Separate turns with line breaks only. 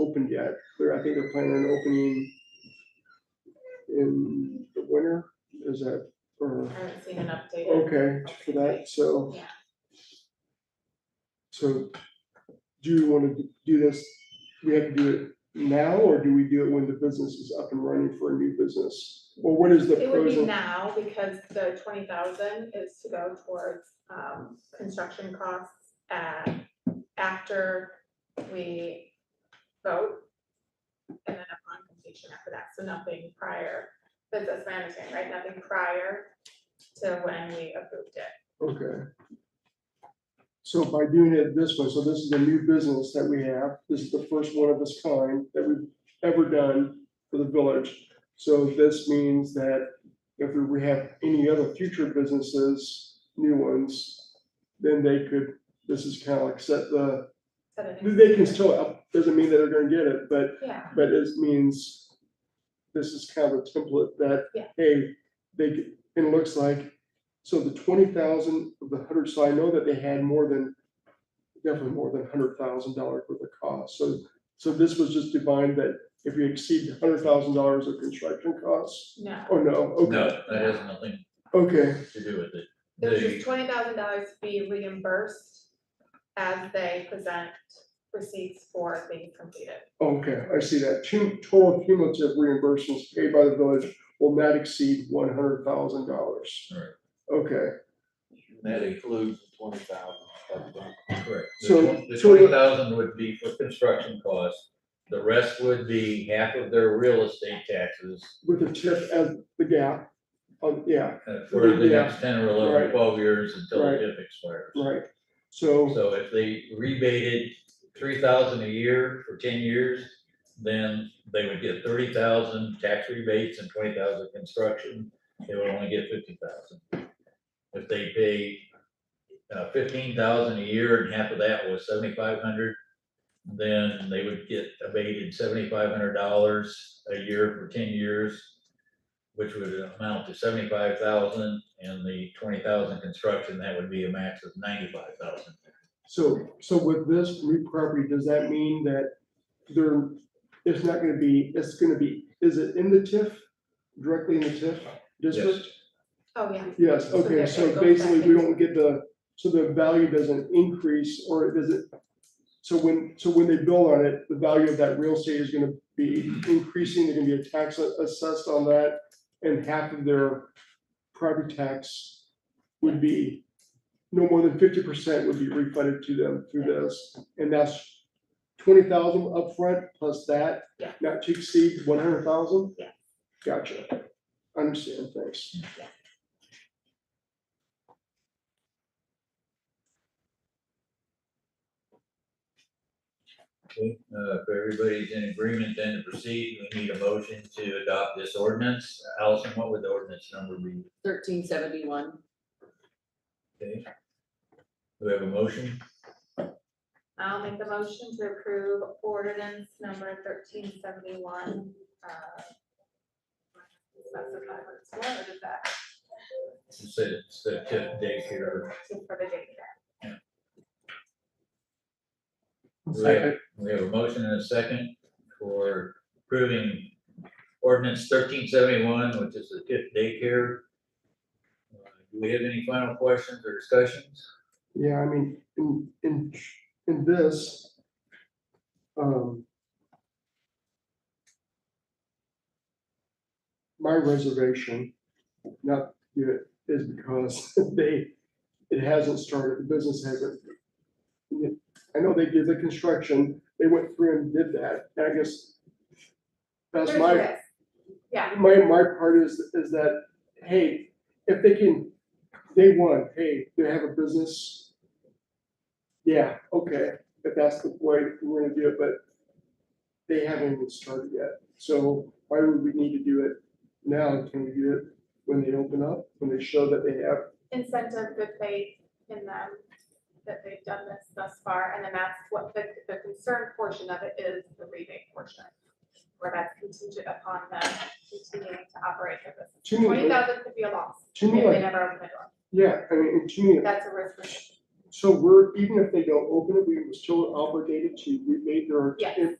opened yet. They're, I think they're planning on opening in the winter, is that, or,
I haven't seen an update.
okay, for that, so.
Yeah.
So, do you wanna do this, we have to do it now, or do we do it when the business is up and running for a new business? Well, what is the
It would
pros
be
and
now because the twenty thousand is to go towards um construction costs and after we vote. And then upon completion after that, so nothing prior, but that's my understanding, right? Nothing prior to when we approved it.
Okay. So by doing it this way, so this is a new business that we have, this is the first one of its kind that we've ever done for the village. So this means that if we have any other future businesses, new ones, then they could, this is kind of like set the,
So the next-
they can still, up. doesn't mean that they're gonna get it, but
Yeah,
but it means this is kind of a template that,
Yeah.
hey, they, could- and it looks like, so the twenty thousand of the hundred, so I know that they had more than, definitely more than hundred thousand dollars worth of cost, so, so this was just defined that if you exceed hundred thousand dollars of construction costs,
no,
oh, no, okay,
No, that has nothing
okay,
to do with it.
there's
They-
just twenty thousand dollars to be reimbursed as they present receipts for things completed.
okay, I see that, two, total cumulative reimbursements paid by the village will not exceed one hundred thousand dollars.
Right.
Okay,
That
includes the twenty thousand.
Correct.
So-
The
so-
twenty thousand would be for construction costs. The rest would be half of their real estate taxes
with the tip as the gap, um, yeah,
uh, for the
Yeah.
next ten or eleven,
Right.
or twelve years until the
Right.
TIF expires.
right, so,
So if they rebated three thousand a year for ten years, then they would get thirty thousand tax rebates and twenty thousand construction, they would only get fifty thousand. If they pay uh, fifteen thousand a year and half of that was seventy-five hundred, then they would get abated seventy-five hundred dollars a year for ten years, which would amount to seventy-five thousand, and the twenty thousand construction, that would be a max of ninety-five thousand.
so, so with this new property, does that mean that there, it's not gonna be, it's gonna be, is it in the TIF? Directly in the TIF district?
Oh, yeah.
Yes,
So
okay,
that
so
it goes
basically,
back
we
into-
don't get the, so the value doesn't increase, or does it? So when, so when they build on it, the value of that real estate is gonna be increasing, There's gonna be a tax assessed on that, and half of their property tax would be, no more than fifty percent would be refunded to them through this, and that's twenty thousand upfront plus that,
Yeah.
not to exceed one hundred thousand?
Yeah.
Gotcha, understand, thanks.
Okay, uh, if everybody's in agreement then to proceed, we need a motion to adopt this ordinance. Allison, what would the ordinance number be?
thirteen seventy-one.
Okay. Do we have a motion?
I'll make the motion to approve ordinance number thirteen seventy-one. uh, Specify what it's for, or does that,
It's the, it's the TIF daycare.
just for the daycare?
We have, we have a motion and a second for approving ordinance thirteen seventy-one, which is the TIF daycare. Uh, Do we have any final questions or discussions?
Yeah, I mean, in, in, in this, um, my reservation, not, yet is because they, it hasn't started, the business hasn't. I know they did the construction, they went through and did that, and I guess that's
There's
my.
risk. Yeah,
My, my part is, is that, hey, if they can, day one, hey, they have a business. Yeah, okay, if that's the way we're gonna do it, but they haven't even started yet. So why would we need to do it now? Can we do it when they open up, when they show that they have?
incentive good faith in them, that they've done this thus far, and then that's what the, the concern portion of it is, the rebate portion. Where that's contingent upon them continuing to operate their business.
To
Twenty
me,
thousand could be a loss,
to
if
me,
they
like,
never open the door,
yeah, I mean, to me,
that's a risk. we-
so we're, even if they don't open it, we were still obligated to rebate their.
Yes.